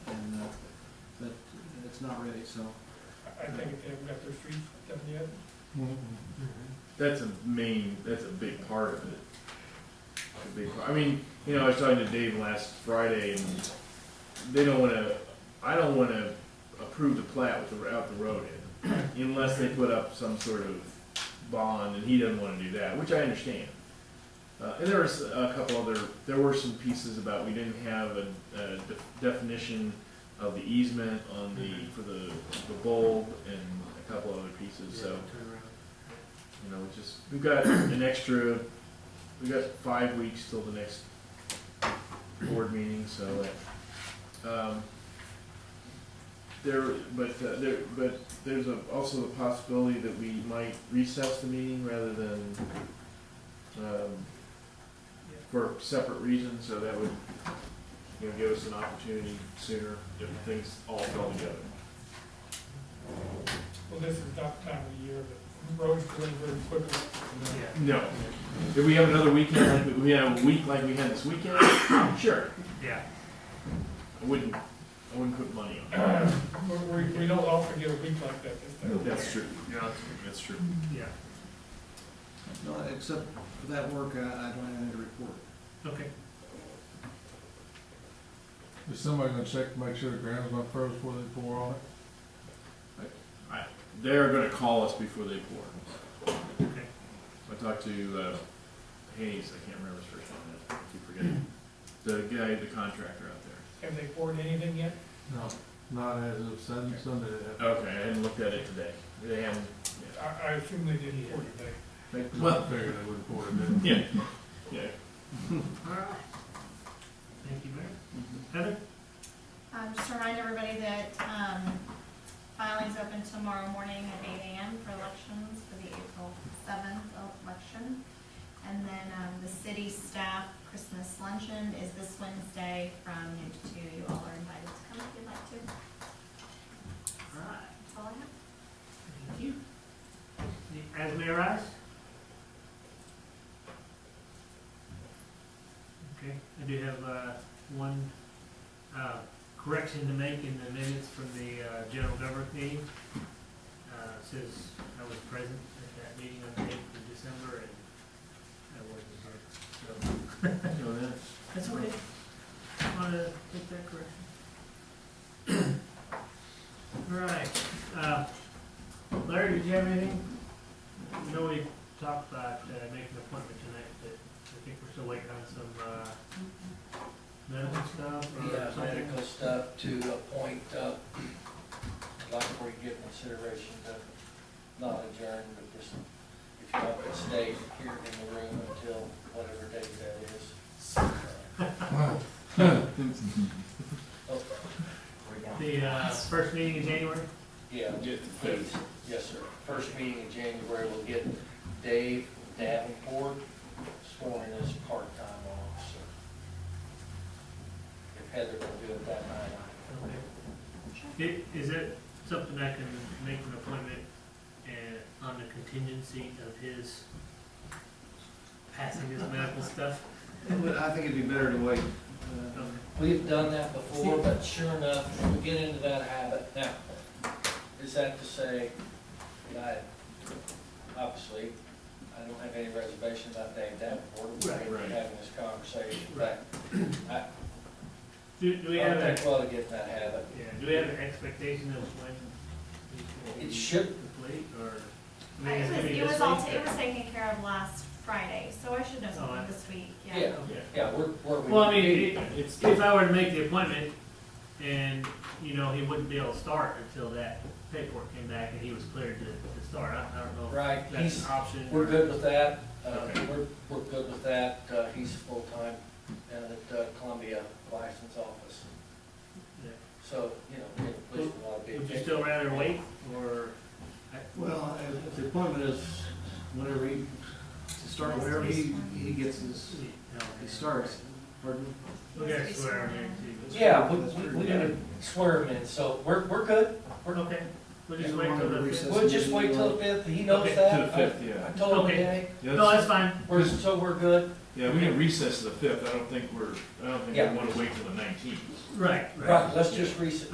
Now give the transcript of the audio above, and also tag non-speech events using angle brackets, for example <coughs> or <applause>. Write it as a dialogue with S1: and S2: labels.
S1: uh, it's not ready, so.
S2: I think if they haven't got their streets done yet,
S3: That's a main. That's a big part of it. A big part. I mean, you know, I was talking to Dave last Friday, and they don't want to. I don't want to approve the plat with the out the road in, unless they put up some sort of bond, and he doesn't want to do that, which I understand. Uh, and there was a couple other. There were some pieces about we didn't have a, a de- definition of the easement on the for the the bulb and a couple other pieces. So. You know, we just, we've got an extra, we've got five weeks till the next board meeting, so, um, there, but, uh, there, but there's a, also the possibility that we might recess the meeting rather than, um, for separate reasons, so that would, you know, give us an opportunity sooner if things all fell together.
S2: well, this is not the time of the year, but roads go in very quickly. you know.
S3: No, if we have another weekend, like we- we have a week like we had this weekend, <coughs> sure,
S4: Yeah.
S3: I wouldn't, I wouldn't put money on it.
S2: We, we- we don't often get a week like that this time.
S3: That's true. Yeah, that's true.
S4: Yeah,
S1: No, except for that work, I, I don't have anything to report.
S4: okay.
S5: Is somebody gonna check to make sure the ground's not froze before they pour on it?
S3: I, they're gonna call us before they pour.
S4: Okay.
S3: I talked to, uh, Hayes, I can't remember his first name, I keep forgetting. The guy, the contractor out there.
S2: Have they poured anything yet?
S5: No. Not as of Sunday, Sunday it happened.
S3: Okay, I hadn't looked at it today. They haven't,
S2: I, I assume they didn't pour today.
S3: they,
S5: I
S3: well,
S5: figured they wouldn't pour it in.
S3: yeah, yeah.
S4: All right. Thank you, Mayor. Heather?
S6: Um, just to remind everybody that, um, filing's open tomorrow morning at eight AM for elections for the April seventh election. And then, um, the city staff Christmas luncheon is this Wednesday from noon to two. You all are invited to come if you'd like to.
S4: All right.
S6: That's all I have.
S4: Thank you. As may rise. Okay, I do have uh, one uh, correction to make in the minutes from the uh, general government meeting. Uh, it Says I was present at that meeting on the eighth of December and I wasn't here, so
S3: You know that.
S4: that's okay. Want to make that correction? <coughs> All right, uh, Larry, did you have anything? I know we talked about uh, making an appointment tonight, but I think we're still waiting on some, uh, medical stuff
S1: Uh,
S7: Yeah,
S4: or something.
S7: medical stuff to a point, uh, I'd like for you to give consideration, but not adjourn, but just, if you want to stay here in the room until whatever date that is.
S4: The, uh, first meeting in January?
S7: Yeah,
S3: Get the
S7: please,
S3: fifth.
S7: yes, sir. First meeting in January, we'll get Dave Davenport sworn in as part-time officer. If Heather will do it that night,
S4: It, is it something I can make an appointment uh on the contingency of his passing his medical stuff?
S1: It would- I think it'd be better to wait. uh,
S4: Okay.
S7: We've done that before, but sure enough, we get into that habit. Now, is that to say, that I, obviously, I don't have any reservation about Dave Davenport, we're
S4: Right,
S3: right.
S7: having this conversation, but I,
S4: Do, do we
S7: I
S4: have a?
S7: think we ought to get in that habit.
S4: Yeah, do we have an expectation of when it will
S7: It
S4: be
S7: should,
S4: complete, or? I mean,
S6: It
S4: it's
S6: was,
S4: gonna be
S6: it
S4: this
S6: was all,
S4: week,
S6: it was taken care of last Friday, so I should know
S4: Oh, I-
S6: something this week, yeah.
S7: yeah,
S4: but- Okay.
S7: yeah, we're, we're.
S4: Well, I mean, it-
S3: It's,
S4: if I were to make the appointment, and, you know, he wouldn't be able to start until that paperwork came back and he was cleared to, to start, I, I don't know. if
S7: Right,
S4: That's
S7: he's,
S4: an option.
S7: We're good with that, uh,
S3: Okay.
S7: we're, we're good with that, uh, he's full-time down at uh, Columbia License Office.
S4: Yeah.
S7: So, you know, at least we want to be.
S4: Would you still rather wait, or?
S1: Well, if- if the appointment is whenever he, to start whenever he, he gets his, he starts, pardon?
S4: We gotta swear him in too.
S7: Yeah, we, we, we're gonna swear him in, so we're, we're good,
S4: We're okay, we'll just
S1: Yeah,
S4: wait till
S1: we're
S4: the
S1: gonna
S4: fifth.
S1: recess.
S7: we'll just wait till the fifth, he knows
S4: Okay,
S3: to
S7: that.
S3: the fifth, yeah.
S7: I- I told him
S4: Okay.
S7: today,
S3: Yeah,
S4: No,
S3: that's-
S4: that's fine,
S7: we're, so we're good,
S3: yeah, we can recess to the fifth, I don't think we're, I don't think
S7: Yeah.
S3: we wanna wait till the nineteenth.
S4: right, right.
S7: right, let's just reset,